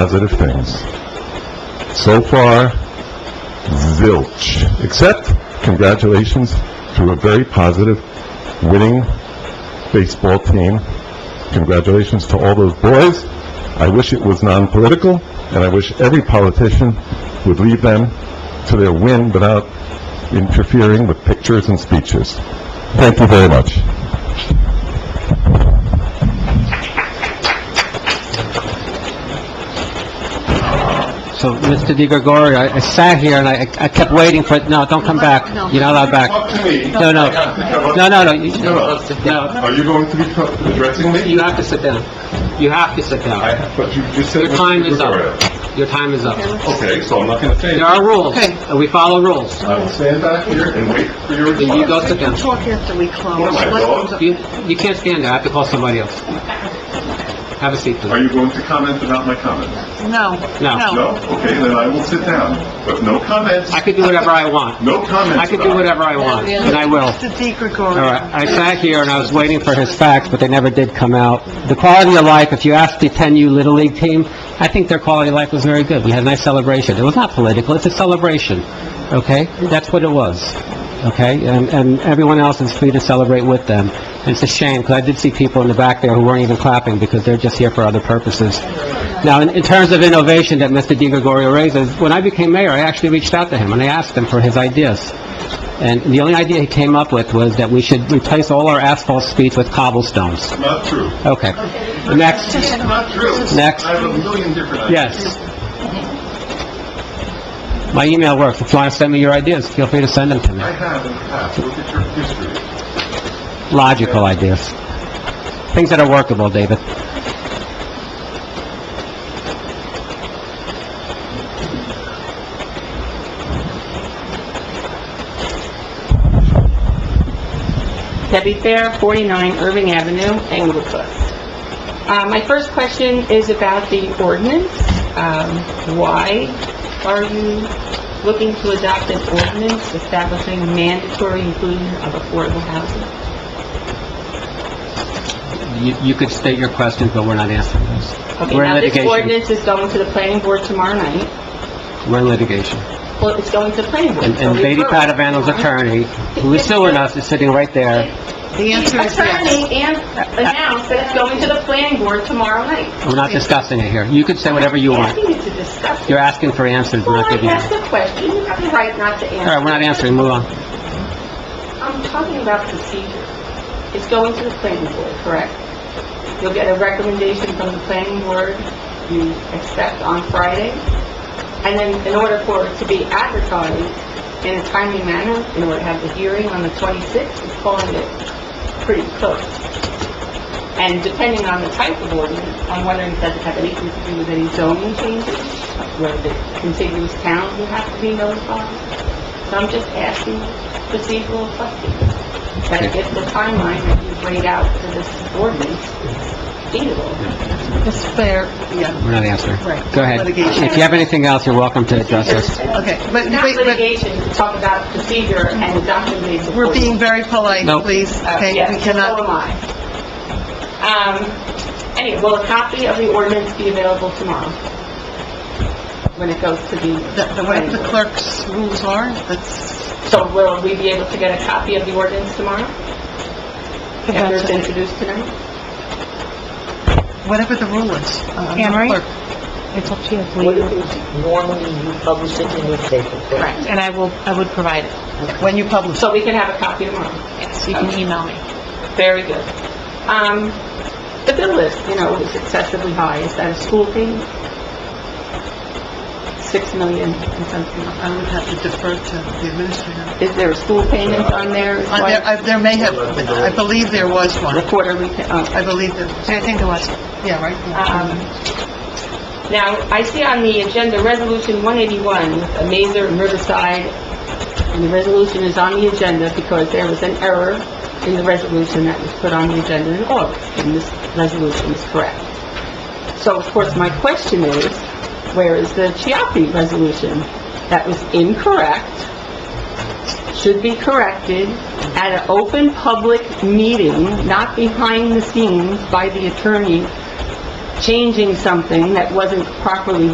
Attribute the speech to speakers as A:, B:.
A: positive things. So far, zilch, except congratulations to a very positive, winning baseball team. Congratulations to all those boys. I wish it was non-political, and I wish every politician would leave them to their win without interfering with pictures and speeches. Thank you very much.
B: So, Mr. Di Gregorio, I I sat here and I I kept waiting for, it. no, don't come back.
C: No.
B: You're not allowed back.
A: Talk to me.
B: No, no.
A: I have to come up-
B: No, no, no, you,
A: No.
B: no,
A: Are you going to be co- addressing me?
B: you have to sit down. You have to sit down.
A: I, but you just said...
B: Your time is up.
A: Mr.
B: Your time is up.
A: Gregorio. Okay, so I'm not gonna say...
B: There are rules, and we follow rules.
A: I will stand back here and wait for your response.
B: You you go sit down.
C: Talk after we close.
A: What am I,
C: Let's-
A: dog?
B: You you can't stand there, I have to call somebody else. Have a seat,
A: Are
B: please.
A: you going to comment about my comments?
C: No,
B: No.
C: no.
A: No? Okay, then I will sit down, but no comments,
B: I could do whatever I want.
A: no comments
B: I could do
A: about it.
B: whatever I want, and I will.
C: Mr. Di Gregorio.
B: All right, I sat here and I was waiting for his facts, but they never did come out. The quality of life, if you ask the 10U Little League team, I think their quality of life was very good. We had a nice celebration. It was not political, it's a celebration, okay? That's what it was, okay? And, and everyone else is free to celebrate with them. And it's a shame, because I did see people in the back there who weren't even clapping, because they're just here for other purposes. Now, in, in terms of innovation that Mr. Di Gregorio raises, when I became mayor, I actually reached out to him, and I asked him for his ideas. And the only idea he came up with was that we should replace all our asphalt streets with cobblestones.
A: Not true.
B: Okay. Next,
A: It's not true.
B: Next.
A: I have a million different ideas.
B: yes. My email works. If you want to send me your ideas, feel free to send them to me.
A: I have in the past, look at your history.
B: Logical ideas. Things that are workable, David.
D: Debbie Fair, 49 Irving Avenue, Englewood. Uh, My first question is about the ordinance. Um, Why are you looking to adopt an ordinance establishing mandatory inclusion of affordable housing?
B: You, you could state your questions, but we're not answering those.
D: Okay,
B: We're in
D: now this
B: litigation.
D: ordinance is going to the planning board tomorrow night.
B: We're in litigation.
D: Well, it's going to the planning board.
B: And, and
D: so we
B: Lady
D: vote.
B: Padavano's attorney, who is suing us, is sitting right there.
C: The
D: The
C: answer is yes.
D: attorney an- announced that it's going to the planning board tomorrow night.
B: We're not discussing it here. You could say whatever you
D: I'm
B: want.
D: asking you to discuss it.
B: You're asking for answers, we're
D: Well,
B: not
D: I
B: giving you.
D: asked a question, you have the right not to
B: All
D: answer.
B: right, we're not answering, move on.
D: I'm talking about procedure. It's going to the planning board, correct? You'll get a recommendation from the planning board, you accept on Friday, and then in order for it to be advertised in a timely manner, in order to have the hearing on the 26th, it's calling it pretty close. And depending on the type of ordinance, I'm wondering if that has anything to do with any zoning changes, whether the contiguous towns will have to be notified. So I'm just asking procedural questions. That if the timeline that you've laid out for this ordinance feasible.
C: It's fair, yeah,
B: We're not answering.
C: Right.
B: Go ahead.
C: Litigation.
B: If you have anything else, you're welcome to address us.
C: okay. But,
D: It's not
C: but-
D: litigation to talk about procedure and adoption dates.
C: but we're being very polite,
B: Nope.
C: please, okay?
D: Uh, Yes,
C: We
D: so
C: cannot,
D: am I. Um, anyway, will a copy of the ordinance be available tomorrow? When it goes to the...
C: the the way the clerk's rules are, that's,
D: So will we be able to get a copy of the ordinance tomorrow? After it's
C: Eventually.
D: introduced tonight?
C: whatever the rule is. uh, I'm the
E: Anne Marie?
C: clerk.
E: It's up to you.
F: What if it's normally you publish it in the newspaper? correct?
D: Right.
E: And I will, I would provide it.
C: When you publish.
D: So we can have a copy tomorrow?
E: Yes, you can email me.
D: Very good. Um, the bill list, you know, is excessively high. Is that a school thing? Six million and something.
C: I would have to defer to the administrator.
D: Is there a school payment on there? Is
C: Uh, There
D: like
C: I- there may have, I believe there was
D: a
C: one. Uh,
D: quarterly, pa- oh.
C: I believe there was.
E: I think there was.
C: Yeah, right?
D: Um, Now, I see on the agenda Resolution 181, with Mazer and Riverside, and the resolution is on the agenda because there was an error in the resolution that was put on the agenda in August, and this resolution is correct. So, of course, my question is, where is the Chiapi resolution that was incorrect, should be corrected at an open public meeting, not behind the scenes by the attorney changing something that wasn't properly